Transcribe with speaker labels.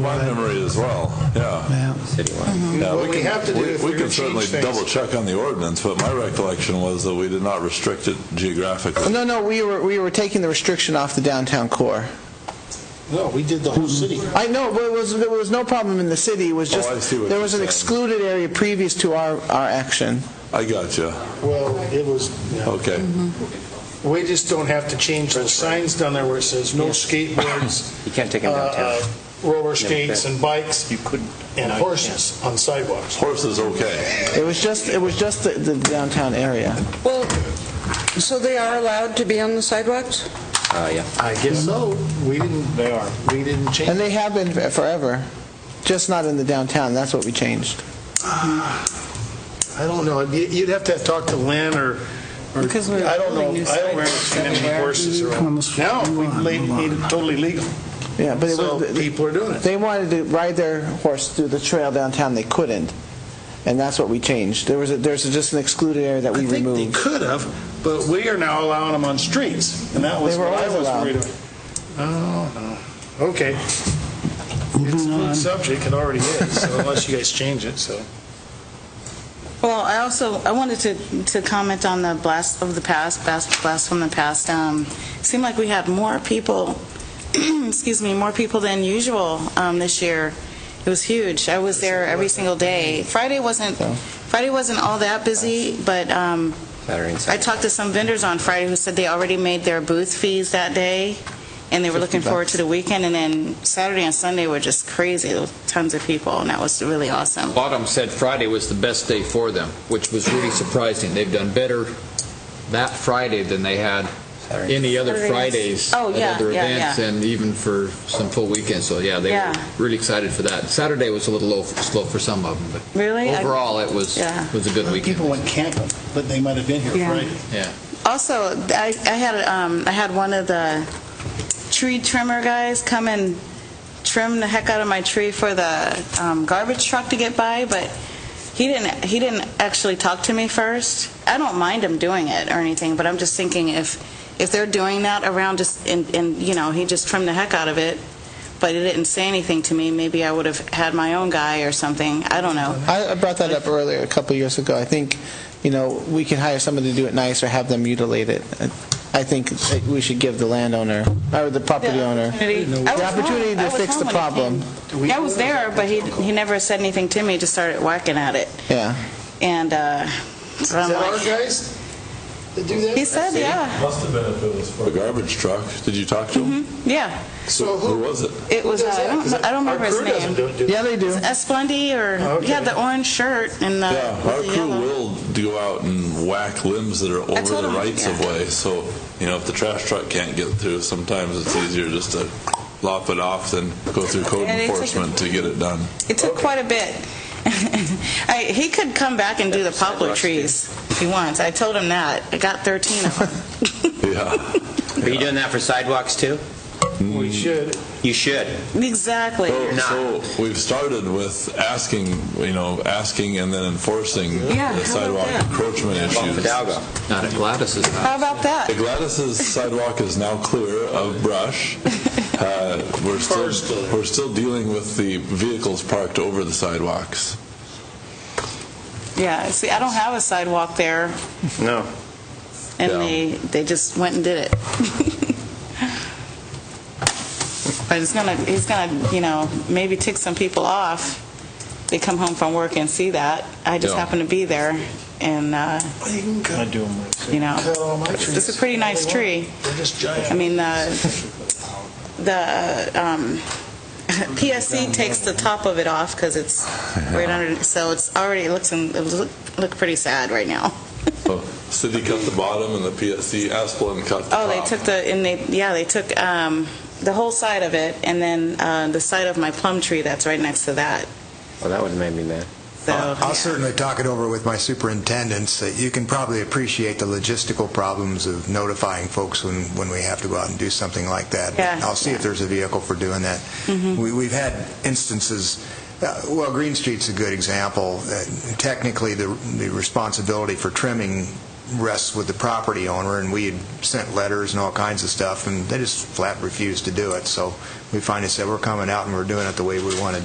Speaker 1: My memory as well, yeah.
Speaker 2: Yeah.
Speaker 3: citywide.
Speaker 1: Yeah,
Speaker 4: What we
Speaker 1: can-
Speaker 4: have to do
Speaker 1: we-
Speaker 4: if
Speaker 1: We
Speaker 4: we're
Speaker 1: can
Speaker 4: gonna
Speaker 1: certainly
Speaker 4: change things-
Speaker 1: double check on the ordinance, but my recollection was that we did not restrict it geographically.
Speaker 2: No, no, we were, we were taking the restriction off the downtown core.
Speaker 4: No, we did the whole city.
Speaker 2: I know, but it was, there was no problem in the city, it was
Speaker 1: Oh,
Speaker 2: just,
Speaker 1: I see what
Speaker 2: there
Speaker 1: you're
Speaker 2: was an
Speaker 1: saying.
Speaker 2: excluded area previous to our, our action.
Speaker 1: I got you,
Speaker 4: Well, it was, yeah.
Speaker 1: okay.
Speaker 5: Mm-hmm.
Speaker 4: we just don't have to change the signs down there where it says no skateboards,
Speaker 3: You can't take
Speaker 4: uh,
Speaker 3: them downtown.
Speaker 4: uh, roller skates and bikes
Speaker 3: You couldn't.
Speaker 4: and horses on sidewalks.
Speaker 1: Horse is okay.
Speaker 2: It was just, it was just the- the downtown area.
Speaker 6: Well, so they are allowed to be on the sidewalks?
Speaker 3: Uh, yeah.
Speaker 4: I guess so. We didn't, they are, we didn't change.
Speaker 2: And they have been forever, just not in the downtown, that's what we changed.
Speaker 4: I don't know, You- you'd have to talk to Lynn or, or-
Speaker 6: Because we're
Speaker 4: I don't know,
Speaker 6: building new
Speaker 4: I don't
Speaker 6: sidewalks
Speaker 4: understand any
Speaker 6: everywhere.
Speaker 4: horses or,
Speaker 2: Almost-
Speaker 4: now, we la- made it totally legal,
Speaker 2: Yeah, but it
Speaker 4: so
Speaker 2: was,
Speaker 4: people are doing it.
Speaker 2: they wanted to ride their horse through the trail downtown, they couldn't, and that's what we changed. There was, a- there's just an excluded area that
Speaker 4: I
Speaker 2: we
Speaker 4: think they
Speaker 2: removed.
Speaker 4: could have, but we are now allowing them on streets, and that was
Speaker 2: They were
Speaker 4: what I
Speaker 2: always
Speaker 4: was
Speaker 2: allowed.
Speaker 4: worried about. Oh, no. okay. It's a good subject, it already is, so unless you guys change it, so.
Speaker 5: Well, I also, I wanted to, to comment on the blast of the past, blast, blast from the past. Um, Seemed like we had more people, excuse me, more people than usual um, this year. It was huge. I was there every single day. Friday wasn't, Friday wasn't all that busy, but um,
Speaker 3: Saturday and
Speaker 5: I
Speaker 3: Sunday.
Speaker 5: talked to some vendors on Friday who said they already made their booth fees that day, and they were looking forward to the weekend, and then Saturday and Sunday were just crazy, There was tons of people, and that was really awesome.
Speaker 7: Autumn said Friday was the best day for them, which was really surprising. They've done better that Friday than they had
Speaker 3: Saturday.
Speaker 7: any other
Speaker 6: Saturdays.
Speaker 7: Fridays
Speaker 5: Oh, yeah,
Speaker 7: at other
Speaker 5: yeah,
Speaker 7: events,
Speaker 5: yeah.
Speaker 7: and even for some full weekends. So yeah, they
Speaker 5: Yeah.
Speaker 7: were really excited for that. Saturday was a little low, slow for some of them, but
Speaker 5: Really? I-
Speaker 7: overall it was
Speaker 5: Yeah.
Speaker 7: was a good weekend.
Speaker 4: People went camping, but they might have been here
Speaker 6: Yeah.
Speaker 4: Friday.
Speaker 7: yeah.
Speaker 5: Also, I, I had, um, I had one of the tree trimmer guys come and trim the heck out of my tree for the, um, garbage truck to get by, but he didn't, he didn't actually talk to me first. I don't mind him doing it or anything, but I'm just thinking if, if they're doing that around just, and, and, you know, he just trimmed the heck out of it, but he didn't say anything to me, maybe I would have had my own guy or something, I don't know.
Speaker 2: I I brought that up earlier, a couple years ago. I think, you know, we can hire somebody to do it nice or have them mutilate it. I- I think that we should give the landowner, or the property owner,
Speaker 5: opportunity. I
Speaker 2: the
Speaker 5: was
Speaker 2: opportunity
Speaker 5: home. I
Speaker 2: to
Speaker 5: was
Speaker 2: fix the
Speaker 5: home when he
Speaker 2: problem.
Speaker 5: came. I was there, but he, he never said anything to me, just started whacking at it.
Speaker 2: Yeah.
Speaker 5: And, uh, so
Speaker 4: Is
Speaker 5: I'm
Speaker 4: that our
Speaker 5: like,
Speaker 4: guys that do that?
Speaker 5: he said, yeah,
Speaker 1: Must have been if it was for... A garbage truck, did you talk to him?
Speaker 5: yeah.
Speaker 4: So
Speaker 1: Who
Speaker 4: who?
Speaker 1: was it?
Speaker 5: It was, uh,
Speaker 4: does
Speaker 5: I
Speaker 4: that? 'Cause
Speaker 5: don't, I don't
Speaker 4: our
Speaker 5: remember his
Speaker 4: crew doesn't
Speaker 5: name.
Speaker 4: do it, Oh, do they?
Speaker 2: Yeah, they do.
Speaker 5: Esplendy or, he had the orange shirt and the.
Speaker 1: Yeah, our
Speaker 5: Uh, the
Speaker 1: crew
Speaker 5: yellow.
Speaker 1: will go out and whack limbs that are over
Speaker 5: told
Speaker 1: the
Speaker 5: him,
Speaker 1: rights of
Speaker 5: yeah.
Speaker 1: way, so, you know, if the trash truck can't get through, sometimes it's easier just to lop it off than go through code
Speaker 5: Yeah, they took it-
Speaker 1: enforcement to get it done.
Speaker 5: It took quite a bit. I, he could come back and do the poplar
Speaker 3: Rusty.
Speaker 5: trees if he wants. I told him that. I got 13 of them.
Speaker 1: Yeah.
Speaker 3: Are you doing that for sidewalks too?
Speaker 4: We should.
Speaker 3: You should.
Speaker 5: Exactly.
Speaker 4: Oh.
Speaker 1: So,
Speaker 3: not.
Speaker 1: so we've started with asking, you know, asking and then enforcing
Speaker 6: Yeah,
Speaker 1: the
Speaker 6: how
Speaker 1: sidewalk
Speaker 6: about that?
Speaker 1: encroachment
Speaker 3: Well,
Speaker 1: issues.
Speaker 3: Fidalgo.
Speaker 7: Not at Gladys's house.
Speaker 5: How about that?
Speaker 1: The Gladys's sidewalk is now clear of brush. Uh, we're still
Speaker 4: Cars still there.
Speaker 1: we're still dealing with the vehicles parked over the sidewalks.
Speaker 5: Yeah, see, I don't have a sidewalk there,
Speaker 3: No.
Speaker 5: and
Speaker 1: Yeah.
Speaker 5: they, they just went and did it. But it's gonna, it's gonna, you know, maybe tick some people off. They come home from work and see that. I just
Speaker 1: Yeah.
Speaker 5: happened to be there, and, uh,
Speaker 4: Well, you can cut,
Speaker 5: you know,
Speaker 4: cut all my trees.
Speaker 5: it's a pretty nice tree.
Speaker 4: They're just giant.
Speaker 5: I mean, the, the um, PSC takes the top of it off because it's right under, so it's already, it looks, in- it look look pretty sad right now.
Speaker 1: So city cut the bottom and the PSC Asplund cut the
Speaker 5: Oh, they
Speaker 1: top.
Speaker 5: took the, and they, yeah, they took um, the whole side of it, and then uh, the side of my plum tree that's right next to that,
Speaker 3: Well, that would've made me mad.
Speaker 5: so.
Speaker 8: Oh, I'll certainly talk it over with my superintendents. that You can probably appreciate the logistical problems of notifying folks when, when we have to go out and do something like that.
Speaker 5: Yeah. Mm-hmm.
Speaker 8: I'll see if there's a vehicle for doing that. We, we've had instances, uh, well, Green Street's a good example. Uh, Technically, the, the responsibility for trimming rests with the property owner, and we had sent letters and all kinds of stuff, and they just flat refused to do it. So we finally said, we're coming out and we're doing it the way we want to